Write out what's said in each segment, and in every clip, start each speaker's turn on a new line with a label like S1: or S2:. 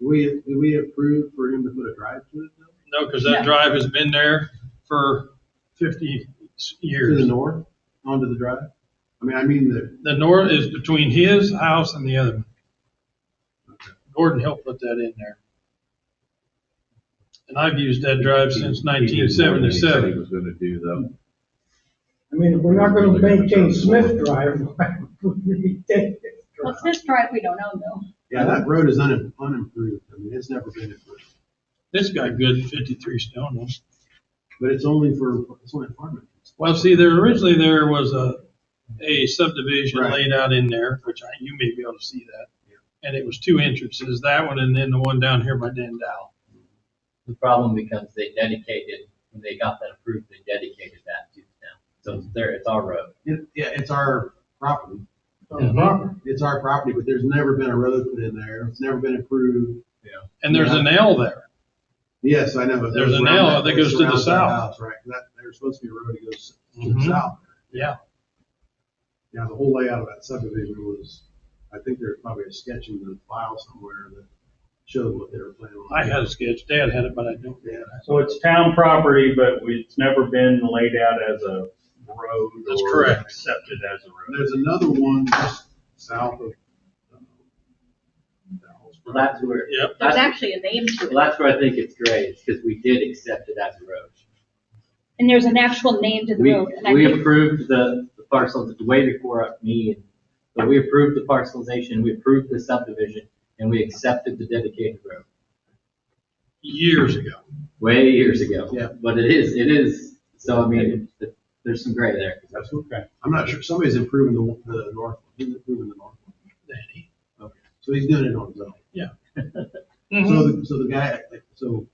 S1: we, did we approve for him to put a drive to it though?
S2: No, because
S3: No.
S2: that drive has been there for 50
S1: To the
S2: years.
S1: north, onto the drive? I mean, I mean the,
S2: The north is between his house and the other one. Gordon helped put that in there. And I've used that drive since
S4: He did more than he said
S2: 1977.
S4: He was gonna do though.
S5: I mean, if we're not gonna maintain Smith Drive, why would we maintain this
S3: Well,
S5: drive?
S3: Smith Drive, we don't own though.
S1: yeah, that road is unim- unimproved. I mean, it's never been improved.
S2: This guy good 53 stone ones.
S1: But it's only for, it's only farming.
S2: Well, see, there originally there was a, a subdivision
S1: Right.
S2: laid out in there, which I, you may be able to see that. And it was two entrances, that one and then the one down here by Dan Dow.
S6: The problem becomes they dedicated, when they got that approved, they dedicated that to the town. So it's there, it's our road.
S1: It, yeah, it's our property.
S5: On property.
S1: It's our property, but there's never been a road put in there. It's never been improved.
S2: And there's an L there.
S1: Yes, I know. but
S2: There's an
S1: around
S2: L that goes to the
S1: surrounds that
S2: south.
S1: house, Right, that, there's supposed to be a road that goes to the
S2: Mhm.
S1: south.
S2: Yeah.
S1: Yeah, the whole layout of that subdivision was, I think there's probably a sketch in the file somewhere that showed what they were planning on.
S2: I had a sketch, Dad had it, but I don't.
S1: Yeah,
S7: So it's town property, but we- it's never been laid out as a road
S2: That's
S7: or
S2: correct.
S7: accepted as a
S1: And
S7: road.
S1: there's another one just south of. um, Dowell's
S6: Well, that's
S1: property.
S6: where,
S2: Yep,
S3: There's
S6: that's,
S3: actually a name to
S6: well,
S3: it.
S6: that's where I think it's great, is because we did accept it as a road.
S3: And there's an actual name to the
S6: We,
S3: road. and I
S6: we
S3: think-
S6: approved the the parcels, way before me, but we approved the parcelization, we approved the subdivision, and we accepted the dedicated road,
S2: years ago.
S6: way years ago.
S1: Yeah.
S6: But it is, it is, so I mean, it- there's some gray there.
S1: That's okay. I'm not sure, somebody's improving the, the north, one. who's improving the north? one?
S2: Danny.
S1: Okay, so he's doing it on his own. So,
S2: Mhm.
S1: the- so the guy, like, so,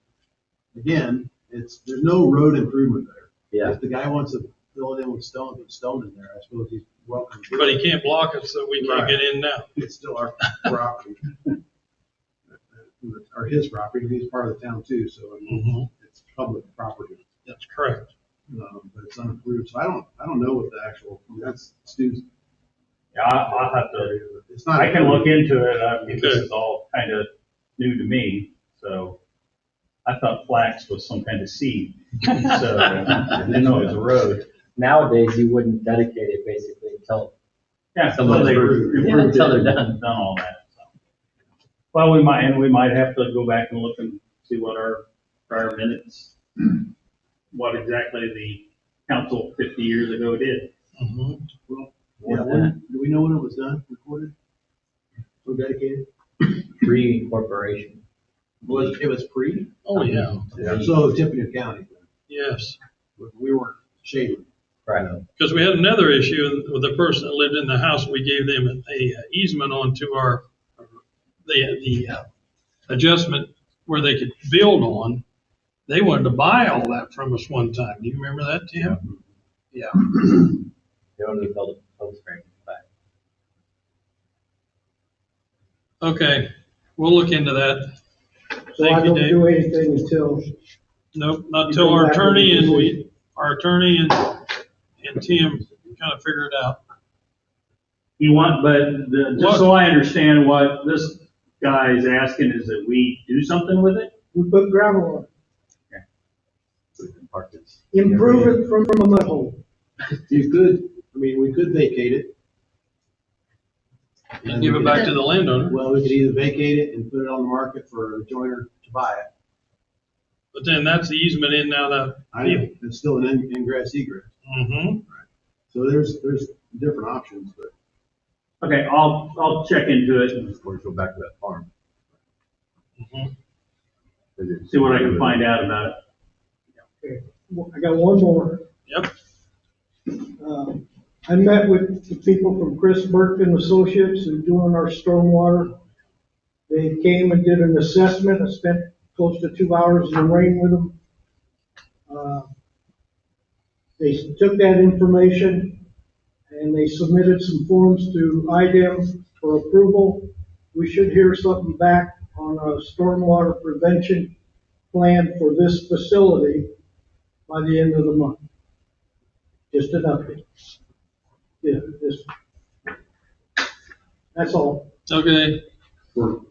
S1: again, it's, there's no road improvement there.
S6: Yeah.
S1: If the guy wants to fill it in with stone, put stone in there, I suppose he's welcome. to it.
S2: But he can't block it, so we can't
S1: Right.
S2: get in now.
S1: It's still our property. Or his property, and he's part of the town too, so I mean, it's public property,
S2: That's correct.
S1: um, but it's unapproved, so I don't, I don't know what the actual, I mean, that's Stu's.
S7: Yeah, I, I'll have to,
S1: It's not.
S7: I can look into it, I mean, this
S2: Okay.
S7: is all kind of new to me, so. I thought flax was some kind of seed, so I didn't know it was a road.
S6: Nowadays, you wouldn't dedicate it basically until,
S7: Yeah, so
S6: Someone
S7: they
S1: approved.
S7: re-
S6: Yeah,
S7: approved
S6: until
S7: it
S6: they're done.
S7: and done all that, so. Well, we might, and we might have to go back and look and see what our prior minutes, what exactly the council fifty years ago did.
S2: Mhm.
S1: Yeah, when- do we know when it was done, recorded? Or dedicated?
S6: pre-incorporation.
S1: Was, it was pre?
S2: Oh, yeah,
S4: Yeah.
S1: So Tiffany County,
S2: yes.
S1: we weren't shaded.
S6: Right.
S2: Because we had another issue with the person that lived in the house, we gave them a easement onto our, the, the uh, adjustment where they could build on. They wanted to buy all that from us one time. Do you remember that, Tim? Yeah,
S6: They only built a post frame back.
S2: okay, we'll look into that.
S5: So I
S2: Thank you,
S5: don't
S2: Dave.
S5: do anything until
S2: Nope, not till our attorney and we, our attorney and, and Tim kind of figure it out.
S7: You want, but the, just so I understand what this guy is asking is that we do something with it?
S5: we put gravel on,
S6: So we can park this.
S5: it. improve it from, from a mud hole.
S1: You could, I mean, we could vacate it.
S2: And give it back to the landowner,
S1: Well, we could either vacate it and put it on the market for a joiner to buy it.
S2: but then that's the easement in now that.
S1: I know, it's still an in- ingress egress.
S2: Mhm.
S1: So there's, there's different options, but
S7: Okay, I'll, I'll check into it and
S4: Of course, go back to that farm.
S2: Mhm.
S7: see what I can find out about it.
S5: Well, I got one more.
S2: Yep,
S5: Um, I met with the people from Chris Burke and Associates who doing our stormwater. They came and did an assessment, I spent close to two hours in the rain with them. Uh, They took that information and they submitted some forms to IDEM for approval. We should hear something back on a stormwater prevention plan for this facility by the end of the month. Just an update. Yeah, just. That's all.
S2: okay.
S1: for